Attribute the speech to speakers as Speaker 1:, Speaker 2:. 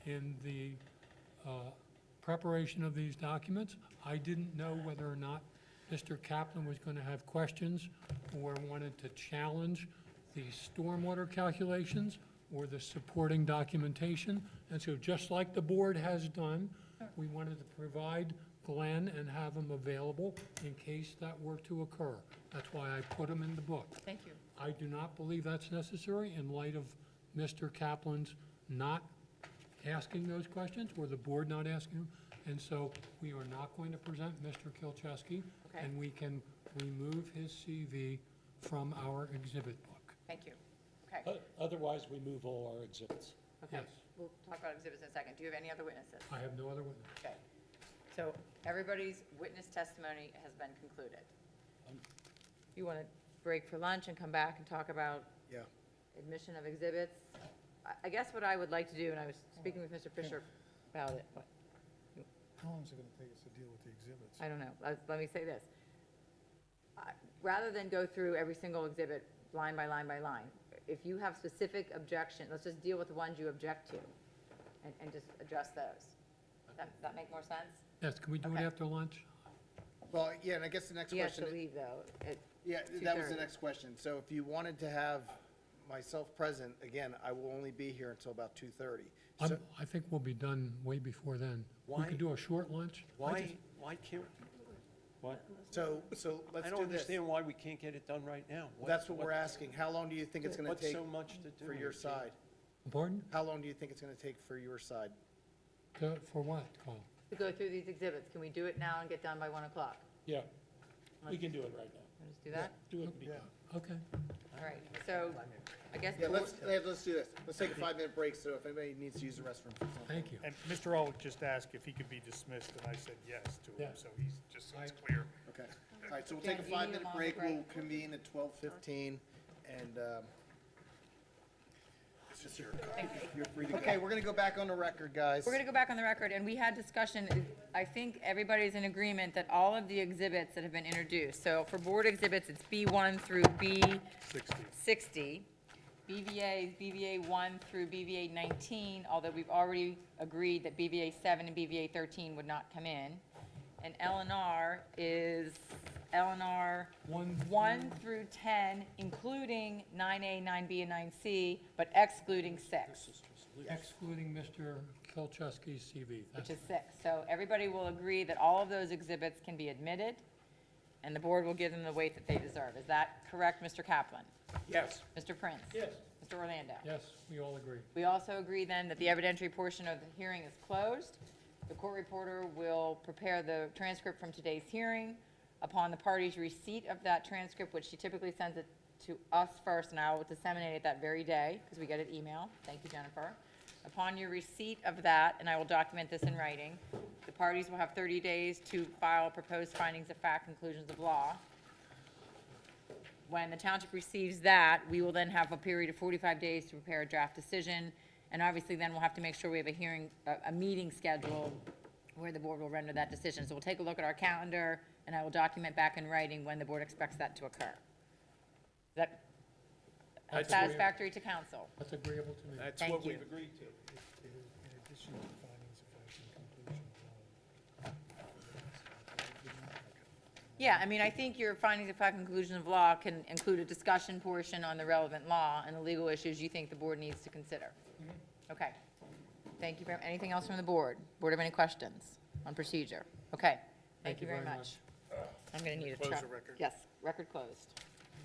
Speaker 1: in the uh, preparation of these documents. I didn't know whether or not Mr. Kaplan was going to have questions or wanted to challenge the stormwater calculations or the supporting documentation. And so just like the board has done, we wanted to provide Glenn and have him available in case that were to occur. That's why I put him in the book.
Speaker 2: Thank you.
Speaker 1: I do not believe that's necessary in light of Mr. Kaplan's not asking those questions, or the board not asking them. And so we are not going to present Mr. Kilchewski,
Speaker 2: Okay.
Speaker 1: and we can remove his CV from our exhibit book.
Speaker 2: Thank you. Okay,
Speaker 3: O- Otherwise, we move all our exhibits.
Speaker 2: okay.
Speaker 1: Yes,
Speaker 2: We'll talk about exhibits in a second. Do you have any other witnesses?
Speaker 1: I have no other witness.
Speaker 2: Okay. So everybody's witness testimony has been concluded.
Speaker 4: Um,
Speaker 2: You want to break for lunch and come back and talk about
Speaker 4: Yeah.
Speaker 2: admission of exhibits? I- I guess what I would like to do, and I was speaking with Mr. Fisher about it, but
Speaker 4: How long is it gonna take us to deal with the exhibits?
Speaker 2: I don't know, let, let me say this. I- Rather than go through every single exhibit line by line by line, if you have specific objection, let's just deal with the ones you object to and, and just address those. That, that make more sense?
Speaker 1: Yes, can we do it
Speaker 2: Okay.
Speaker 1: after lunch?
Speaker 5: Well, yeah, and I guess the next
Speaker 2: He has to
Speaker 5: question,
Speaker 2: leave though. It-
Speaker 5: yeah, that was the
Speaker 2: 2:30.
Speaker 5: next question. So if you wanted to have myself present, again, I will only be here until about two thirty.
Speaker 1: I'm, I think we'll be done way before then. We
Speaker 3: Why-
Speaker 1: could do a short lunch.
Speaker 3: Why, why can't, why,
Speaker 5: So, so let's
Speaker 3: I
Speaker 5: do
Speaker 3: don't
Speaker 5: this.
Speaker 3: understand why we can't get it done right now.
Speaker 5: That's what we're asking. How long do you think it's gonna
Speaker 3: What's
Speaker 5: take
Speaker 3: so much to do?
Speaker 5: for your side?
Speaker 1: Pardon?
Speaker 5: How long do you think it's gonna take for your side?
Speaker 1: To- For what, Carl?
Speaker 2: To go through these exhibits, can we do it now and get done by one o'clock?
Speaker 6: Yeah, we can do it right now.
Speaker 2: Wanna just do that?
Speaker 6: Do it. because-
Speaker 1: Okay.
Speaker 2: All right, so I guess.
Speaker 5: Yeah,
Speaker 2: the-
Speaker 5: let's, let's do this. Let's take a five-minute break, so if anybody needs to use the restroom for something.
Speaker 1: Thank you.
Speaker 7: And Mr. Olick just asked if he could be dismissed, and I said yes to him,
Speaker 1: Yeah.
Speaker 7: so he's, just so it's clear.
Speaker 5: Okay. All right, so we'll
Speaker 2: Yeah,
Speaker 5: take a
Speaker 2: do you need a
Speaker 5: five-minute
Speaker 2: longer
Speaker 5: break. We'll
Speaker 2: break?
Speaker 5: convene at twelve fifteen, and, um,
Speaker 7: This is your.
Speaker 5: you're free to go. Okay, we're gonna go back on the record, guys.
Speaker 2: We're going to go back on the record, and we had discussion, I think everybody's in agreement that all of the exhibits that have been introduced, so for board exhibits, it's B1 through B60. BVA is BVA 1 through BVA 19, although we've already agreed that BVA 7 and BVA 13 would not come in. And LNR is LNR
Speaker 1: One
Speaker 2: 1 through 10, including 9A, 9B, and 9C, but excluding 6
Speaker 1: Excluding Mr. Kilchewski's CV. That's
Speaker 2: which is six. So everybody will agree that all of those exhibits can be admitted, and the board will give them the weight that they deserve. Is that correct, Mr. Kaplan?
Speaker 3: Yes.
Speaker 2: Mr. Prince?
Speaker 6: Yes.
Speaker 2: Mr. Orlando?
Speaker 1: Yes, we all agree.
Speaker 2: We also agree then that the evidentiary portion of the hearing is closed. The court reporter will prepare the transcript from today's hearing. Upon the party's receipt of that transcript, which she typically sends it to us first, and I will disseminate it that very day, because we get an email. Thank you, Jennifer. Upon your receipt of that, and I will document this in writing, the parties will have 30 days to file proposed findings of fact, conclusions of law. When the township receives that, we will then have a period of 45 days to prepare a draft decision. And obviously, then we'll have to make sure we have a hearing, a, a meeting scheduled where the board will render that decision. So we'll take a look at our calendar, and I will document back in writing when the board expects that to occur. Is that
Speaker 1: That's agree-
Speaker 2: satisfactory to council?
Speaker 1: That's agreeable to me.
Speaker 3: That's
Speaker 2: Thank
Speaker 3: what
Speaker 2: you.
Speaker 3: we've agreed to.
Speaker 4: In in addition to findings of fact and conclusion
Speaker 2: Yeah, I mean, I think your findings of fact and conclusion of law can include a discussion portion on the relevant law and the legal issues you think the board needs to consider. Okay. Thank you very, anything else from the board? Board have any questions on procedure? Okay. Thank you very much. I'm going to need a. Close the record. Yes, record closed.